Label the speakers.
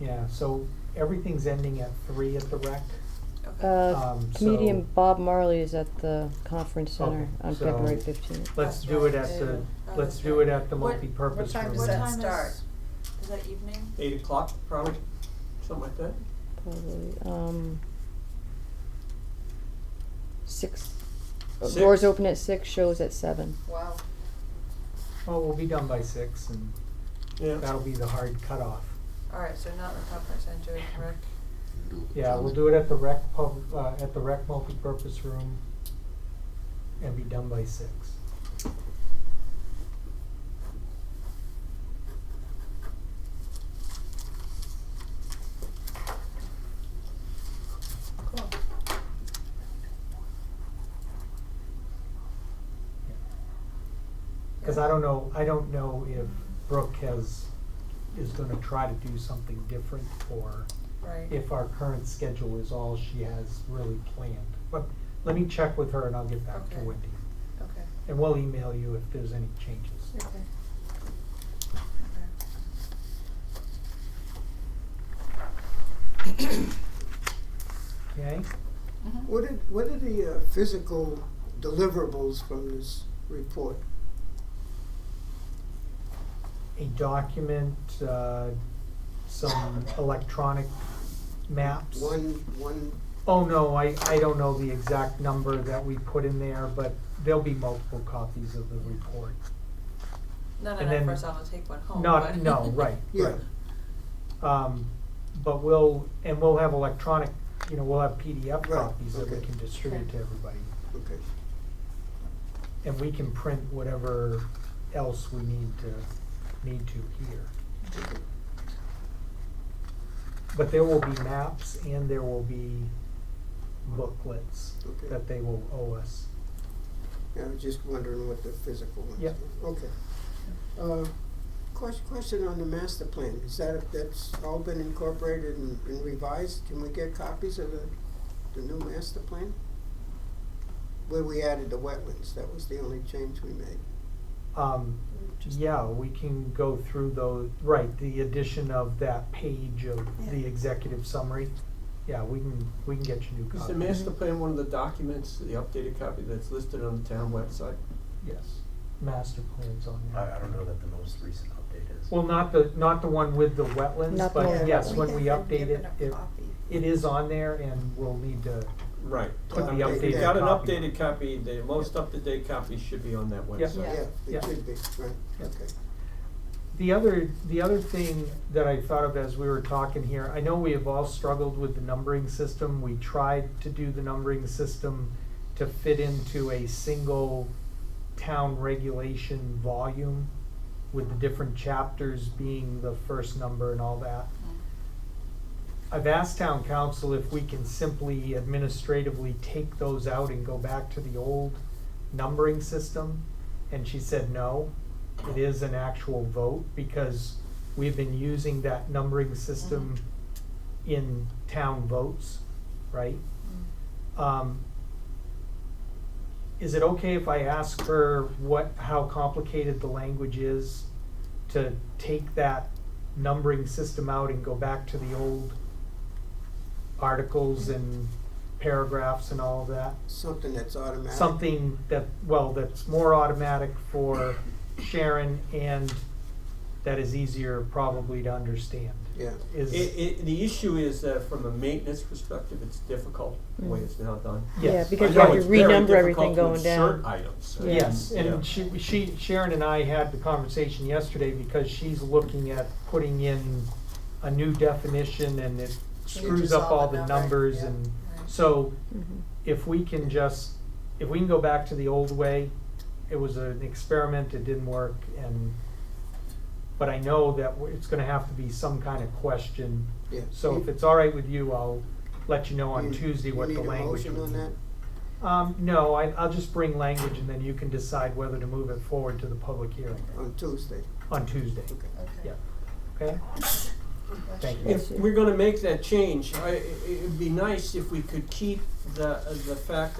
Speaker 1: Yeah, so everything's ending at three at the rec.
Speaker 2: Uh,
Speaker 1: Um,
Speaker 2: comedian
Speaker 1: so-
Speaker 2: Bob Marley is at the conference
Speaker 3: Oh,
Speaker 2: center
Speaker 1: Okay,
Speaker 2: on
Speaker 1: so
Speaker 2: February fifteenth.
Speaker 1: Let's
Speaker 4: That's
Speaker 1: do it
Speaker 4: right.
Speaker 1: at the,
Speaker 4: Yeah.
Speaker 1: let's do it at the
Speaker 5: What-
Speaker 1: multipurpose
Speaker 4: What time
Speaker 1: room.
Speaker 4: does
Speaker 5: What
Speaker 4: that
Speaker 5: time is-
Speaker 4: start?
Speaker 5: Is that evening?
Speaker 3: Eight o'clock, probably, something like that.
Speaker 2: Probably, um, six, uh,
Speaker 3: Six.
Speaker 2: doors open at six, shows at seven.
Speaker 4: Wow.
Speaker 1: Oh, we'll be done by six and
Speaker 3: Yeah.
Speaker 1: that'll be the hard cutoff.
Speaker 4: All right, so not in the conference center, rec.
Speaker 1: Yeah, we'll do it at the rec pub, uh, at the rec multipurpose room and be done by six.
Speaker 4: Cool.
Speaker 1: Cause I don't know, I don't know if Brooke has, is gonna try to do something different or
Speaker 4: Right.
Speaker 1: if our current schedule is all she has really planned. But let me check with her and I'll get back to
Speaker 4: Okay.
Speaker 1: Wendy.
Speaker 4: Okay.
Speaker 1: And we'll email you if there's any changes.
Speaker 4: Okay. Okay.
Speaker 1: Okay?
Speaker 6: What are, what are the uh, physical deliverables from this report?
Speaker 1: A document, uh, some electronic maps.
Speaker 6: One, one,
Speaker 1: Oh, no, I, I don't know the exact number that we put in there, but there'll be multiple copies of the report.
Speaker 5: Not
Speaker 1: And
Speaker 5: enough
Speaker 1: then-
Speaker 5: for us all to take one home,
Speaker 1: Not,
Speaker 5: but-
Speaker 1: no, right,
Speaker 6: yeah,
Speaker 1: right. Um, but we'll, and we'll have electronic, you know, we'll have PDF
Speaker 6: Right,
Speaker 1: copies that we
Speaker 6: okay.
Speaker 1: can distribute to everybody.
Speaker 6: okay.
Speaker 1: And we can print whatever else we need to, need to here. But there will be maps and there will be booklets
Speaker 6: Okay.
Speaker 1: that they will owe us.
Speaker 6: I was just wondering what the physical ones
Speaker 1: Yep.
Speaker 6: were. Okay. Uh, question, question on the master plan, is that, that's all been incorporated and and revised? Can we get copies of the, the new master plan? Where we added the wetlands, that was the only change we made.
Speaker 1: Um, yeah, we can go through those, right, the addition of that page of the
Speaker 4: Yeah.
Speaker 1: executive summary. Yeah, we can, we can get you new
Speaker 3: Is the
Speaker 1: copies.
Speaker 3: master plan one of the documents, the updated copy that's listed on the town website?
Speaker 1: Yes, master plans on there.
Speaker 7: I, I don't know that the most recent update is.
Speaker 1: Well, not the, not the one with the wetlands,
Speaker 2: Not the
Speaker 1: but
Speaker 2: one.
Speaker 1: yes,
Speaker 2: We
Speaker 1: when we
Speaker 4: have been
Speaker 1: update it,
Speaker 4: given a
Speaker 1: it,
Speaker 4: copy.
Speaker 1: it is on there and we'll need to,
Speaker 3: Right.
Speaker 6: Put the
Speaker 3: If you
Speaker 6: updated
Speaker 3: got an
Speaker 1: copy.
Speaker 3: updated copy, the most up-to-date copy should be on that
Speaker 1: Yeah.
Speaker 3: website.
Speaker 2: Yeah.
Speaker 6: Yeah,
Speaker 1: Yeah.
Speaker 6: it should be, right,
Speaker 1: Yeah.
Speaker 6: okay.
Speaker 1: The other, the other thing that I thought of as we were talking here, I know we have all struggled with the numbering system. We tried to do the numbering system to fit into a single town regulation volume with the different chapters being the first number and all that.
Speaker 5: Mm.
Speaker 1: I've asked town council if we can simply administratively take those out and go back to the old numbering system. And she said no, it is an actual vote because we've been using that numbering system in town votes, right?
Speaker 5: Mm.
Speaker 1: Um, is it okay if I ask her what, how complicated the language is to take that numbering system out and go back to the old articles and paragraphs and all of that?
Speaker 6: Something that's automatic.
Speaker 1: something that, well, that's more automatic for Sharon and that is easier probably to understand.
Speaker 6: Yeah.
Speaker 1: Is,
Speaker 3: It, it, the issue is that from a maintenance perspective, it's difficult, the
Speaker 2: Mm.
Speaker 3: way it's now done.
Speaker 2: Yeah,
Speaker 1: yes,
Speaker 2: because
Speaker 3: I
Speaker 2: you have
Speaker 3: know
Speaker 2: to
Speaker 3: it's very
Speaker 2: renumber everything
Speaker 3: difficult
Speaker 2: going
Speaker 3: to
Speaker 2: down.
Speaker 3: insert items.
Speaker 2: Yeah.
Speaker 1: yes,
Speaker 3: Yeah.
Speaker 1: and she, she, Sharon and I had the conversation yesterday because she's looking at putting in a new definition and it screws
Speaker 4: Changes
Speaker 1: up
Speaker 4: all
Speaker 1: all
Speaker 4: the
Speaker 1: the
Speaker 4: number,
Speaker 1: numbers
Speaker 4: yeah,
Speaker 1: and,
Speaker 4: right.
Speaker 1: so
Speaker 2: Mhm.
Speaker 1: if we can just, if we can go back to the old way, it was an experiment, it didn't work, and, but I know that w- it's gonna have to be some kind of question.
Speaker 6: Yeah.
Speaker 1: So if
Speaker 6: You-
Speaker 1: it's all right with you, I'll let you know on
Speaker 6: you-
Speaker 1: Tuesday what the language
Speaker 6: You need a
Speaker 1: would
Speaker 6: motion
Speaker 1: be.
Speaker 6: on
Speaker 1: Um, no, I, I'll just bring language and then you can decide whether to move it forward to the public hearing
Speaker 6: that on Tuesday?
Speaker 1: on Tuesday.
Speaker 6: Okay.
Speaker 4: Okay.
Speaker 1: Yeah, okay? Thank you.
Speaker 3: If we're gonna make that change, I, it- it'd be nice if we could keep the, the fact